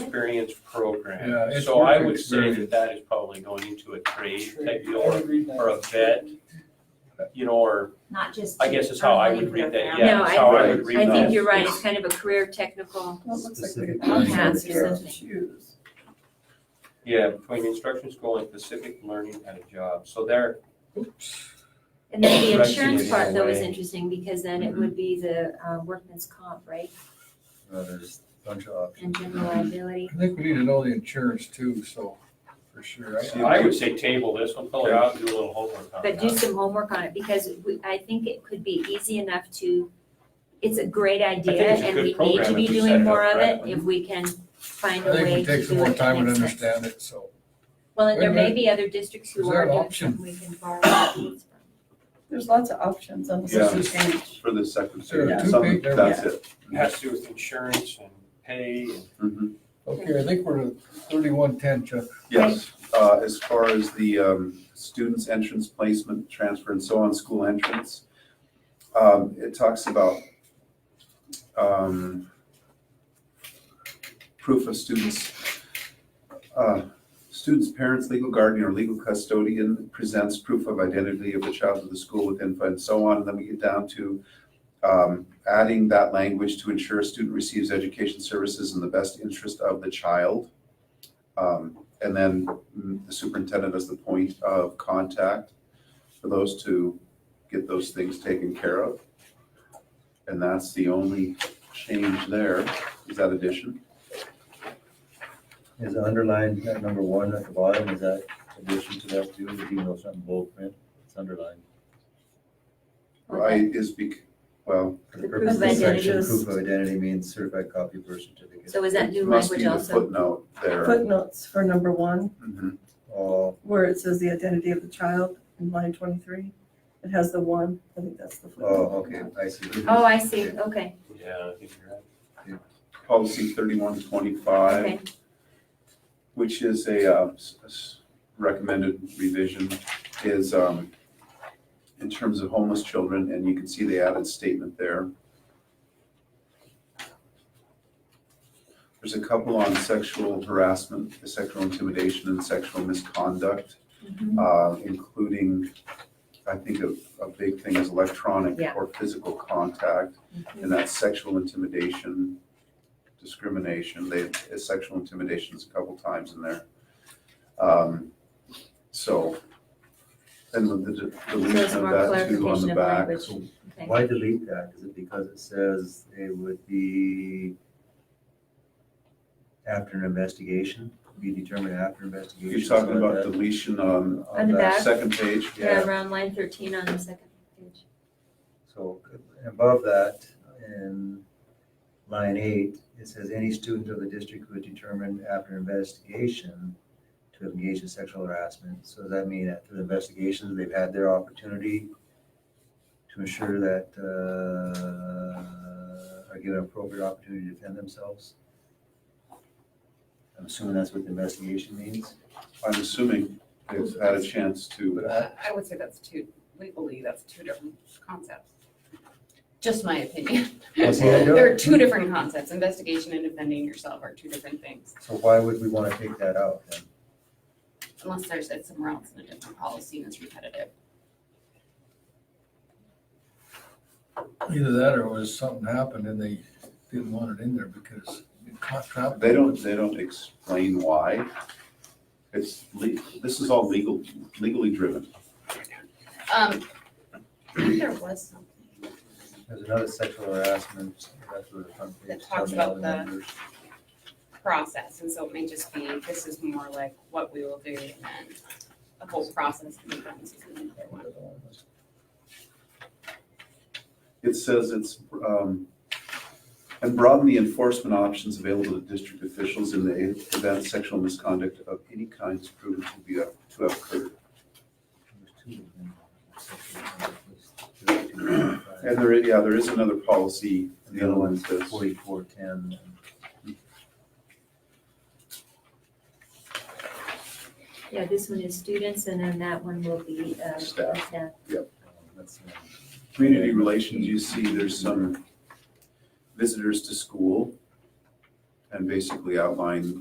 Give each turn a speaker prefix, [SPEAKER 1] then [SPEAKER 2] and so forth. [SPEAKER 1] experience program.
[SPEAKER 2] Yeah, it's
[SPEAKER 1] So I
[SPEAKER 2] work
[SPEAKER 1] would say that
[SPEAKER 2] experience.
[SPEAKER 1] that is probably going into a trade type deal
[SPEAKER 3] I
[SPEAKER 1] or,
[SPEAKER 3] would read that.
[SPEAKER 1] or a vet, you know, or
[SPEAKER 4] not just.
[SPEAKER 1] I guess is how I would read that, yeah,
[SPEAKER 5] No,
[SPEAKER 1] that's
[SPEAKER 5] I-
[SPEAKER 1] how I would
[SPEAKER 5] I
[SPEAKER 1] read that.
[SPEAKER 5] think you're right, it's kind of a career technical,
[SPEAKER 3] Well, it looks like they
[SPEAKER 2] Specific
[SPEAKER 3] could put
[SPEAKER 5] Yeah,
[SPEAKER 3] some
[SPEAKER 5] it's
[SPEAKER 3] care to
[SPEAKER 5] something.
[SPEAKER 3] choose.
[SPEAKER 1] Yeah, between instruction school and specific learning at a job, so there,
[SPEAKER 5] and then the
[SPEAKER 1] Right, Mm-hmm.
[SPEAKER 5] insurance
[SPEAKER 1] yeah,
[SPEAKER 5] part though is
[SPEAKER 1] way.
[SPEAKER 5] interesting, because then it would be the uh, workman's comp, right?
[SPEAKER 6] Uh, There's a bunch of options.
[SPEAKER 5] And general liability.
[SPEAKER 2] I think we need to know the insurance too, so, for sure. I-
[SPEAKER 1] I would say table this one, fill it out, and do a little homework on
[SPEAKER 5] But do
[SPEAKER 1] that.
[SPEAKER 5] some homework on it, because we, I think it could be easy enough to, it's a great idea,
[SPEAKER 1] it's a
[SPEAKER 5] and
[SPEAKER 1] good
[SPEAKER 5] we need
[SPEAKER 1] program
[SPEAKER 5] to be
[SPEAKER 1] if we set
[SPEAKER 5] doing
[SPEAKER 1] it
[SPEAKER 5] more
[SPEAKER 1] up
[SPEAKER 5] of it,
[SPEAKER 1] correctly.
[SPEAKER 5] if we can
[SPEAKER 2] I
[SPEAKER 5] find a
[SPEAKER 2] think
[SPEAKER 5] way
[SPEAKER 2] it
[SPEAKER 5] to
[SPEAKER 2] takes
[SPEAKER 5] do
[SPEAKER 2] some more
[SPEAKER 5] it that
[SPEAKER 2] time to
[SPEAKER 5] makes sense.
[SPEAKER 2] understand it, so.
[SPEAKER 5] Well, and there
[SPEAKER 2] Wait a
[SPEAKER 5] may be other districts
[SPEAKER 2] Is
[SPEAKER 5] who
[SPEAKER 2] there
[SPEAKER 5] are
[SPEAKER 2] an
[SPEAKER 5] doing
[SPEAKER 2] option?
[SPEAKER 5] something we can borrow ideas from.
[SPEAKER 3] There's lots of options on the
[SPEAKER 6] Yeah.
[SPEAKER 3] second page.
[SPEAKER 6] For the second
[SPEAKER 2] There
[SPEAKER 3] are
[SPEAKER 6] series,
[SPEAKER 2] two
[SPEAKER 6] some,
[SPEAKER 2] big- there-
[SPEAKER 6] that's it.
[SPEAKER 1] It Has to do with insurance and pay and
[SPEAKER 6] Mhm.
[SPEAKER 2] Okay, I think we're at thirty-one ten, Chuck.
[SPEAKER 6] Yes, uh, as far as the, um, students' entrance, placement, transfer, and so on, school entrance, um, it talks about, um, proof of students, uh, students' parents, legal guardian, or legal custodian presents proof of identity of the child to the school with info and so on. And then we get down to, um, adding that language to ensure a student receives education services in the best interest of the child. Um, and then mm, the superintendent is the point of contact for those to get those things taken care of. And that's the only change there, is that addition?
[SPEAKER 7] Is underlined, that number one at the bottom, is that addition to that too, even though it's not in bold print, it's underlined.
[SPEAKER 6] Right, is bec, well,
[SPEAKER 7] For the purpose of
[SPEAKER 5] proof of
[SPEAKER 7] this section,
[SPEAKER 3] identity.
[SPEAKER 7] proof of identity means certified copy of birth certificate.
[SPEAKER 5] So is that new
[SPEAKER 6] it must be
[SPEAKER 5] language
[SPEAKER 6] the
[SPEAKER 5] also?
[SPEAKER 6] footnote there.
[SPEAKER 3] Footnotes for number one,
[SPEAKER 6] Mhm.
[SPEAKER 7] All,
[SPEAKER 3] where it says the identity of the child in line twenty-three. It has the one, I think that's the
[SPEAKER 7] oh,
[SPEAKER 3] footnote.
[SPEAKER 7] okay, I see.
[SPEAKER 5] Oh, I see, okay,
[SPEAKER 1] Yeah, I think you're right.
[SPEAKER 6] Policy thirty-one twenty-five,
[SPEAKER 5] okay.
[SPEAKER 6] which is a uh, s- s- recommended revision, is um, in terms of homeless children, and you can see the added statement there. There's a couple on sexual harassment, sexual intimidation, and sexual misconduct,
[SPEAKER 5] Mhm.
[SPEAKER 6] uh, including, I think a, a big thing is electronic
[SPEAKER 5] Yeah. Mm-hmm.
[SPEAKER 6] or physical contact, and that's sexual intimidation, discrimination, they, uh, sexual intimidation is a couple times in there. Um, So, and with the de-
[SPEAKER 5] There's
[SPEAKER 6] deletion
[SPEAKER 5] more
[SPEAKER 6] of that too on
[SPEAKER 5] clarification
[SPEAKER 6] the
[SPEAKER 5] of
[SPEAKER 6] back.
[SPEAKER 5] language. Okay.
[SPEAKER 7] Why delete that? Is it because it says it would be after an investigation, be determined after investigation?
[SPEAKER 6] You're talking
[SPEAKER 7] so
[SPEAKER 6] about
[SPEAKER 7] that-
[SPEAKER 6] deletion on,
[SPEAKER 5] On the back?
[SPEAKER 6] second page?
[SPEAKER 5] Yeah, around line thirteen on the second page.
[SPEAKER 7] So above that, in line eight, it says any student of the district who is determined after investigation to have engaged in sexual harassment. So does that mean after the investigation, they've had their opportunity to ensure that, uh, are given appropriate opportunity to defend themselves? I'm assuming that's what the investigation means?
[SPEAKER 6] I'm assuming they've had a chance to,
[SPEAKER 7] uh,
[SPEAKER 8] I would say that's two, legally, that's two different concepts. Just my opinion.
[SPEAKER 7] Well, see, I don't-
[SPEAKER 8] There are two different concepts. Investigation and defending yourself are two different things,
[SPEAKER 7] So why would we want to take that out then?
[SPEAKER 8] unless there's said somewhere else in a different policy and it's repetitive.
[SPEAKER 2] Either that or it was something happened and they didn't want it in there because it caught traffic.
[SPEAKER 6] they don't, they don't explain why. It's, le- this is all legal, legally driven.
[SPEAKER 8] Um, I think there was something.
[SPEAKER 7] There's another sexual harassment, that's what the front page.
[SPEAKER 8] That talks
[SPEAKER 7] tell me all
[SPEAKER 8] about the-
[SPEAKER 7] numbers.
[SPEAKER 8] process, and so it may just be, this is more like what we will do, and then the whole process can be done. so it's another one.
[SPEAKER 6] It says it's, um, and broaden the enforcement options available to district officials in the e, event sexual misconduct of any kind is proven to be, to have occurred.
[SPEAKER 7] There's two of them. Sexual harassment, there's two,
[SPEAKER 6] And there, yeah, there is another policy,
[SPEAKER 7] And
[SPEAKER 6] the other one
[SPEAKER 7] there's
[SPEAKER 6] says,
[SPEAKER 7] Forty-four, ten.
[SPEAKER 5] Yeah, this one is students, and then that one will be, uh,
[SPEAKER 6] Staff.
[SPEAKER 5] staff.
[SPEAKER 7] um,
[SPEAKER 6] Community relations, you see there's some visitors to school and basically outline